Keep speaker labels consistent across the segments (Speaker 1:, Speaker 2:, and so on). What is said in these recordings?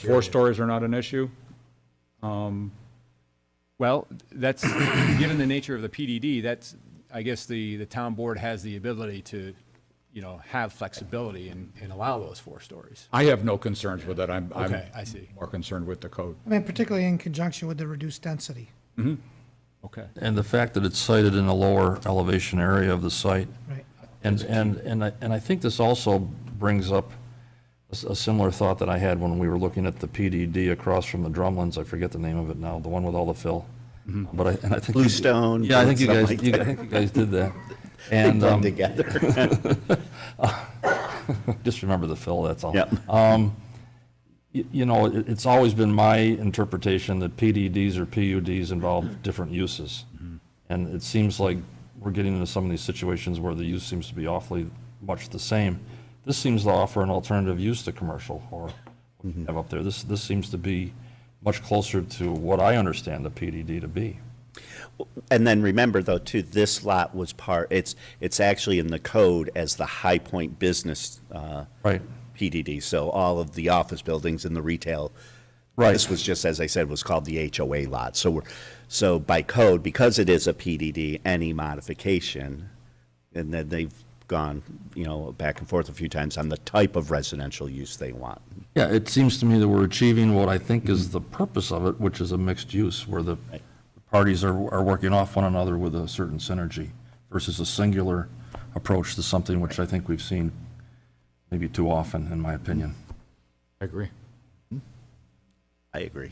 Speaker 1: Four stories are not an issue? Um, Well, that's, given the nature of the PDD, that's, I guess the, the town board has the ability to, you know, have flexibility and, and allow those four stories.
Speaker 2: I have no concerns with that. I'm, I'm
Speaker 1: Okay, I see.
Speaker 2: more concerned with the code.
Speaker 3: I mean, particularly in conjunction with the reduced density.
Speaker 1: Okay.
Speaker 4: And the fact that it's sited in a lower elevation area of the site.
Speaker 3: Right.
Speaker 4: And, and, and I, and I think this also brings up a s- a similar thought that I had when we were looking at the PDD across from the Drumlins, I forget the name of it now, the one with all the fill. But I, and I think. you-
Speaker 5: Bluestone,
Speaker 4: Yeah, I think you
Speaker 5: something
Speaker 4: guys,
Speaker 5: like
Speaker 4: you- I think you guys did that.
Speaker 5: They
Speaker 4: And,
Speaker 5: blend
Speaker 4: um,
Speaker 5: together.
Speaker 4: just remember the fill, that's all.
Speaker 5: Yep.
Speaker 4: y- you know, it- it's always been my interpretation that PDDs or PUDs involve different uses. And it seems like we're getting into some of these situations where the use seems to be awfully much the same. This seems to offer an alternative use to commercial or what you have up there. This, this seems to be much closer to what I understand the PDD to be.
Speaker 5: And then remember though, too, this lot was part, it's, it's actually in the code as the High Point Business uh,
Speaker 4: Right.
Speaker 5: PDD. So all of the office buildings and the retail.
Speaker 4: Right.
Speaker 5: This was just, as I said, was called the HOA lot. So we're, so by code, because it is a PDD, any modification, and then they've gone, you know, back and forth a few times on the type of residential use they want.
Speaker 4: Yeah, it seems to me that we're achieving what I think is the purpose of it, which is a mixed use, where the parties are, are working off one another with a certain synergy versus a singular approach to something which I think we've seen maybe too often, in my opinion.
Speaker 2: I agree.
Speaker 5: I agree.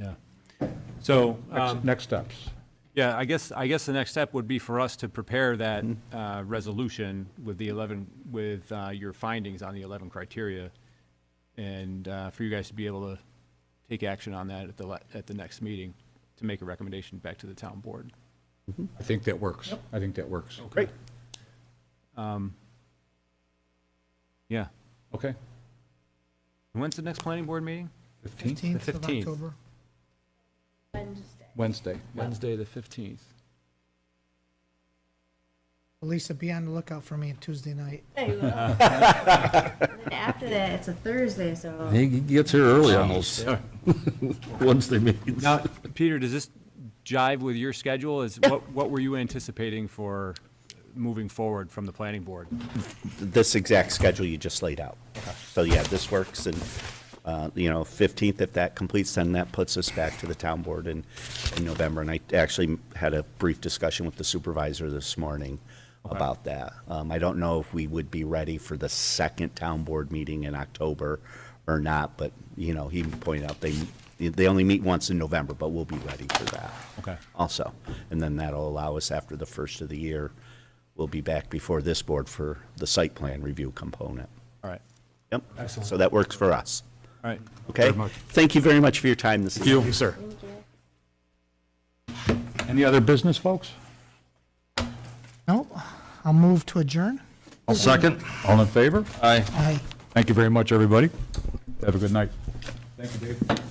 Speaker 1: Yeah. So, um,
Speaker 2: Next steps.
Speaker 1: Yeah, I guess, I guess the next step would be for us to prepare that uh, resolution with the 11, with uh, your findings on the 11 criteria, and uh, for you guys to be able to take action on that at the, le- at the next meeting, to make a recommendation back to the town board.
Speaker 2: I think that works. I think that works.
Speaker 5: Great.
Speaker 1: Yeah.
Speaker 2: Okay.
Speaker 1: When's the next planning board meeting?
Speaker 2: 15th,
Speaker 3: 15th of
Speaker 1: 15th.
Speaker 3: October.
Speaker 2: Wednesday.
Speaker 1: Wednesday, the 15th.
Speaker 3: Lisa, be on the lookout for me on Tuesday night.
Speaker 6: Yeah, you will. And then After that, it's a Thursday, so
Speaker 4: He he gets here early on those Wednesday meetings.
Speaker 1: Now, Peter, does this jive with your schedule? Is, what, what were you anticipating for moving forward from the planning board?
Speaker 5: this exact schedule you just laid out. So yeah, this works and, uh, you know, 15th, if that completes, then that puts us back to the town board in, in November. And I actually had a brief discussion with the supervisor this morning about that. Um, I don't know if we would be ready for the second town board meeting in October or not, but, you know, he pointed out they, they only meet once in November, but we'll be ready for that
Speaker 1: Okay.
Speaker 5: also. And then that'll allow us, after the first of the year, we'll be back before this board for the site plan review component.
Speaker 1: All right,
Speaker 5: Yep. Excellent. So that works for us.
Speaker 1: all right.
Speaker 5: Okay? Thank you very much for your time this evening.
Speaker 2: You, sir. Any other business, folks?
Speaker 3: No, I'll move to adjourn.
Speaker 4: Second?
Speaker 2: All in favor?
Speaker 4: Aye.
Speaker 3: Aye.
Speaker 2: Thank you very much, everybody. Have a good night. Thank you, Dave.